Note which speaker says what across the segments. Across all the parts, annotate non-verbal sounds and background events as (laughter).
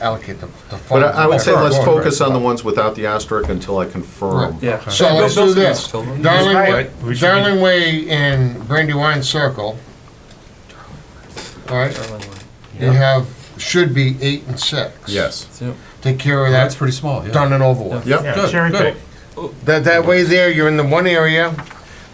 Speaker 1: allocate the, the fund.
Speaker 2: But I I would say
Speaker 1: Sure.
Speaker 2: let's focus on the ones without the asterisk until I confirm.
Speaker 3: Yeah.
Speaker 1: So let's do this. Darling, Wa-
Speaker 3: Right, we should be-
Speaker 1: Darling Way and Brandywine Circle. All right, you have, should be eight and six.
Speaker 2: Yes.
Speaker 1: Take care of
Speaker 4: That's
Speaker 1: that,
Speaker 4: pretty small, yeah.
Speaker 1: done and over with.
Speaker 2: Yep.
Speaker 4: Good,
Speaker 5: cherry
Speaker 4: good.
Speaker 5: pick.
Speaker 1: That, that way there, you're in the one area,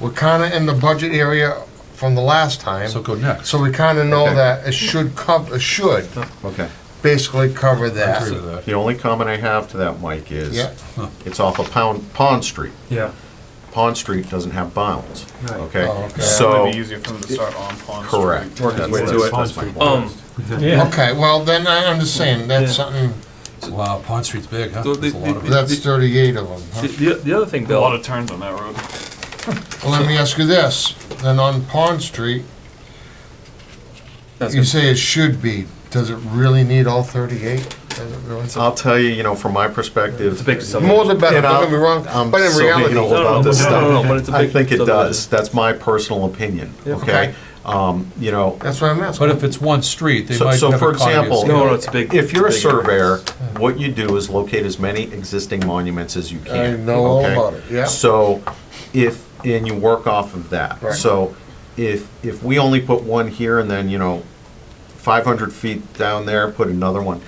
Speaker 1: we're kinda in the budget area from the last time.
Speaker 4: So go next.
Speaker 1: So we kinda know
Speaker 2: Okay.
Speaker 1: that it should cov, it should
Speaker 2: Okay.
Speaker 1: basically cover
Speaker 4: I agree
Speaker 1: that.
Speaker 4: with that.
Speaker 2: The only comment I have to that, Mike, is
Speaker 1: Yeah.
Speaker 2: it's off of Pound, Pond Street.
Speaker 3: Yeah.
Speaker 2: Pond Street doesn't have bounds,
Speaker 1: Oh,
Speaker 2: okay?
Speaker 1: okay.
Speaker 5: It
Speaker 2: So,
Speaker 5: would be easier for them to start on Pond Street.
Speaker 2: correct.
Speaker 4: Work his way
Speaker 2: That's-
Speaker 4: to it.
Speaker 2: that's my point.
Speaker 6: Um,
Speaker 5: Yeah.
Speaker 1: Okay, well, then I understand, that's
Speaker 6: Yeah.
Speaker 1: something,
Speaker 4: Wow, Pond Street's big, huh?
Speaker 6: So the-
Speaker 4: There's a lot of it.
Speaker 1: that's thirty-eight of them. huh?
Speaker 6: the, the- the other thing,
Speaker 5: A lot
Speaker 6: Bill,
Speaker 5: of turns on that road.
Speaker 1: Well, let me ask you this, then on Pond Street,
Speaker 6: that's
Speaker 1: you
Speaker 6: good.
Speaker 1: say it should be, does it really need all thirty-eight? Does it really?
Speaker 2: I'll tell you, you know, from my perspective.
Speaker 6: it's a big
Speaker 1: More
Speaker 6: subdivision.
Speaker 1: the better,
Speaker 2: And I'll-
Speaker 1: don't get me wrong,
Speaker 2: I'm
Speaker 1: but in
Speaker 2: so
Speaker 1: reality.
Speaker 2: ignorant
Speaker 6: No, no,
Speaker 2: about this
Speaker 6: no,
Speaker 2: stuff.
Speaker 6: no, no, but it's a
Speaker 2: I
Speaker 6: big
Speaker 2: think it
Speaker 6: subdivision.
Speaker 2: does. That's my personal opinion,
Speaker 1: Okay.
Speaker 2: okay? Um, You know,
Speaker 1: That's what I'm asking.
Speaker 4: But if it's one street, they
Speaker 2: So-
Speaker 4: might
Speaker 2: so
Speaker 4: have
Speaker 2: for
Speaker 4: a cottage.
Speaker 2: example-
Speaker 6: No, no, it's a big.
Speaker 2: if you're a
Speaker 6: big-
Speaker 2: surveyor, what you do is locate as many existing monuments as you can.
Speaker 1: I know all
Speaker 2: okay?
Speaker 1: about it, yeah.
Speaker 2: So if, and you work off of that.
Speaker 1: Right.
Speaker 2: So if, if we only put one here and then, you know, 500 feet down there, put another one,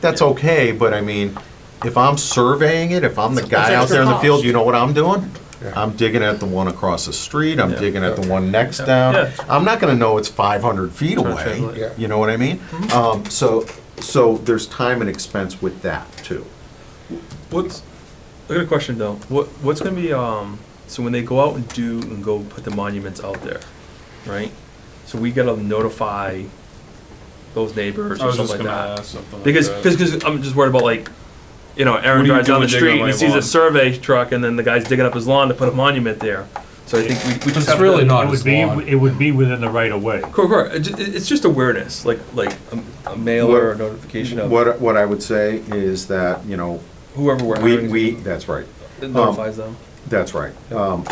Speaker 2: that's okay, but I mean, if I'm surveying it, if I'm the guy out there in the
Speaker 7: extra
Speaker 2: field,
Speaker 7: cost.
Speaker 2: you know what I'm doing?
Speaker 1: Yeah.
Speaker 2: I'm digging at the one across the street, I'm digging at the one next
Speaker 6: Yeah.
Speaker 2: down. I'm not gonna know it's 500 feet away.
Speaker 6: translate.
Speaker 1: Yeah.
Speaker 2: You know what I mean? Um, so, so there's time and expense with that too.
Speaker 6: What's, I got a question though. What, what's gonna be, um, so when they go out and do and go put the monuments out there, right? So we gotta notify those neighbors
Speaker 5: I
Speaker 6: or
Speaker 5: was just
Speaker 6: something
Speaker 5: gonna
Speaker 6: like that.
Speaker 5: ask something like
Speaker 6: Because,
Speaker 5: that.
Speaker 6: because I'm just worried about like, you know,
Speaker 5: What
Speaker 6: Aaron
Speaker 5: do you
Speaker 6: drives
Speaker 5: do
Speaker 6: down the
Speaker 5: when digging
Speaker 6: street and
Speaker 5: up
Speaker 6: he
Speaker 5: my
Speaker 6: sees a
Speaker 5: lawn?
Speaker 6: survey truck and then the guy's digging up his lawn to put a monument there. So I think we, we
Speaker 4: But
Speaker 6: just
Speaker 4: it's
Speaker 6: have
Speaker 4: really
Speaker 6: to.
Speaker 4: not
Speaker 8: It
Speaker 4: as
Speaker 8: would be,
Speaker 4: long.
Speaker 8: it would be within the right of way.
Speaker 6: Correct, correct. It ju- it- It's just awareness, like, like a- a mail or a
Speaker 2: What-
Speaker 6: notification of
Speaker 2: What, what I would say is that, you know,
Speaker 6: whoever we're
Speaker 2: we,
Speaker 6: hiring.
Speaker 2: we, that's right,
Speaker 6: It notifies them.
Speaker 2: that's right. Um,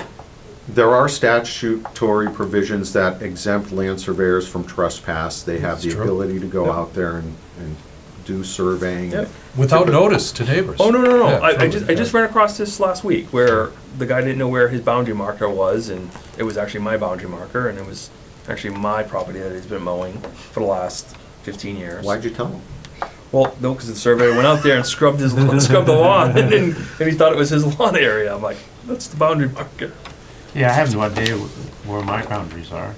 Speaker 2: there are statutory provisions that exempt land surveyors from trespass. They have the
Speaker 4: That's true.
Speaker 2: ability to go
Speaker 6: Yep.
Speaker 2: out there and, and do surveying.
Speaker 6: Yep.
Speaker 4: Without notice to neighbors.
Speaker 6: Oh no no no!
Speaker 4: Yeah,
Speaker 6: I, I
Speaker 4: totally,
Speaker 6: just I just ran across this last week where the guy didn't know where his boundary marker was, and it was actually my boundary marker, and it was actually my property that he's been mowing for the last fifteen years.
Speaker 2: Why'd you tell them?
Speaker 6: Well, no, because the surveyor went out there and scrubbed his (laughs) lawn, scrubbed the lawn, and, then, and he thought it was his (laughs) lawn area. I'm like, that's the boundary marker.
Speaker 8: Yeah, I have no idea wh- where my boundaries are.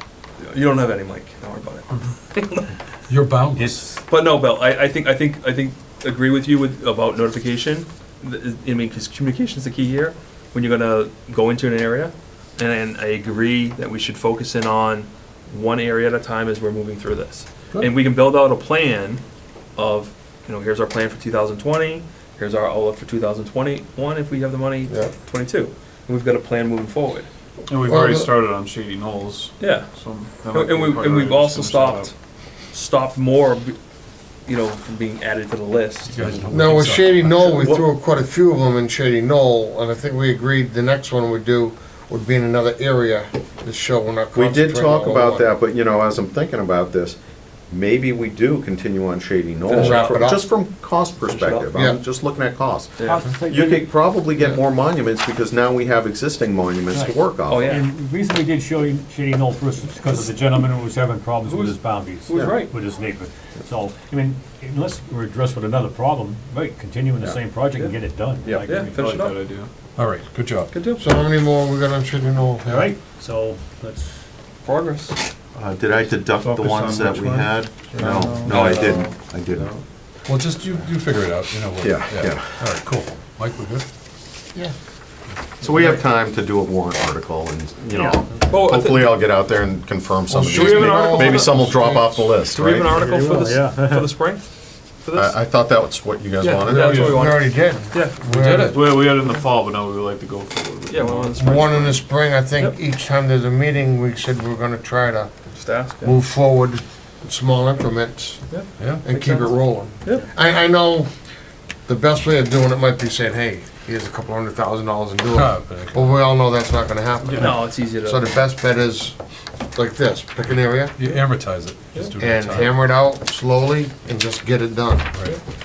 Speaker 6: You don't have any, Mike. Don't worry about it.
Speaker 4: You're boundless.
Speaker 8: It's,
Speaker 6: But no, Bill, I, I think I think I think agree with you with about notification. Th- I mean, because communication is the key here when you're gonna go into an area. And I agree that we should focus in on one area at a time as we're moving through this.
Speaker 4: Good.
Speaker 6: And we can build out a plan of, you know, here's our plan for 2020. Here's our outlook for 2021 if we have the money.
Speaker 1: Yeah.
Speaker 6: 22. And we've got a plan moving forward.
Speaker 5: And we've
Speaker 1: Well,
Speaker 5: already
Speaker 1: the-
Speaker 5: started on Shady Knolls,
Speaker 6: Yeah.
Speaker 5: so. that might
Speaker 6: And and
Speaker 5: be
Speaker 6: we,
Speaker 5: part
Speaker 6: and
Speaker 5: of it,
Speaker 6: we've
Speaker 5: just
Speaker 6: also
Speaker 5: finish that up.
Speaker 6: stopped, stopped more, you know, from being added to the list.
Speaker 4: You guys know
Speaker 1: Now,
Speaker 4: what
Speaker 1: with
Speaker 4: things are.
Speaker 1: Shady Knoll, we
Speaker 6: What-
Speaker 1: threw quite a few of them in Shady Knoll, and I think we agreed the next one we do would be in another area to show we're not
Speaker 2: We did
Speaker 1: concentrating
Speaker 2: talk
Speaker 1: on
Speaker 2: about
Speaker 1: one.
Speaker 2: that, but you know, as I'm thinking about this, maybe we do continue on Shady Knoll,
Speaker 6: Finish it up.
Speaker 2: for- just from cost perspective,
Speaker 1: Yeah.
Speaker 2: I'm just looking at cost.
Speaker 6: Yeah.
Speaker 2: You could probably get more monuments because now we have existing monuments to work off.
Speaker 6: Oh, yeah.
Speaker 8: and the reason we did Shady, Shady Knoll first is because of the gentleman who was having problems with his boundaries.
Speaker 6: who was right.
Speaker 8: With his neighbor. So, I mean, unless we're addressed with another problem, right, continue in the same project and get it done.
Speaker 2: Yeah.
Speaker 8: Like,
Speaker 6: Yeah,
Speaker 8: we-
Speaker 6: finish it
Speaker 5: Good
Speaker 6: up.
Speaker 5: idea.
Speaker 4: All right, good job.
Speaker 6: Good job.
Speaker 1: So how many more we got on Shady Knoll?
Speaker 8: All right, so let's,
Speaker 6: Progress.
Speaker 2: Uh, Did I deduct the
Speaker 5: Focus
Speaker 2: ones
Speaker 5: on
Speaker 2: that
Speaker 5: which
Speaker 2: we
Speaker 5: one?
Speaker 2: had? No, no, I didn't, I didn't.
Speaker 4: Well, just you, you figure it out, you know what.
Speaker 2: Yeah, yeah.
Speaker 4: All right, cool. Mike, we're good?
Speaker 1: Yeah.
Speaker 2: So we have time to do a warrant article and, you know,
Speaker 6: Oh, I thi-
Speaker 2: hopefully I'll get out there and confirm some of
Speaker 1: should we have an article
Speaker 2: these. Maybe
Speaker 1: for
Speaker 2: some will
Speaker 1: the-
Speaker 2: drop off the list,
Speaker 6: do we have an
Speaker 2: right?
Speaker 6: article for
Speaker 8: will,
Speaker 6: this,
Speaker 8: yeah.
Speaker 6: for the spring? For this?
Speaker 2: I, I thought that was what you guys
Speaker 6: Yeah,
Speaker 1: We
Speaker 2: wanted.
Speaker 6: yeah. That's what we want.
Speaker 1: already did.
Speaker 6: Yeah,
Speaker 4: We did it.
Speaker 5: Well, we had it in the fall, but now we would like to go forward. with
Speaker 6: yeah,
Speaker 5: it.
Speaker 6: well, on the spring.
Speaker 1: One in the spring, I think
Speaker 6: Yep.
Speaker 1: each time there's a meeting, we said we're gonna try to
Speaker 6: Just ask. yeah.
Speaker 1: move forward in small increments
Speaker 4: Yeah?
Speaker 1: and keep it
Speaker 6: sense.
Speaker 1: rolling.
Speaker 6: Yep.
Speaker 1: I, I know the best way of doing it might be saying, hey, here's a couple hundred thousand dollars and do
Speaker 4: Ah,
Speaker 1: it.
Speaker 4: but I
Speaker 1: But
Speaker 4: can-
Speaker 1: we all know that's not gonna happen.
Speaker 6: No, it's easy to.
Speaker 1: So the best bet is like this, pick an area
Speaker 4: You amortize it. Just do it
Speaker 1: and
Speaker 4: over time.
Speaker 1: hammer it out slowly and just get it done.
Speaker 4: Right.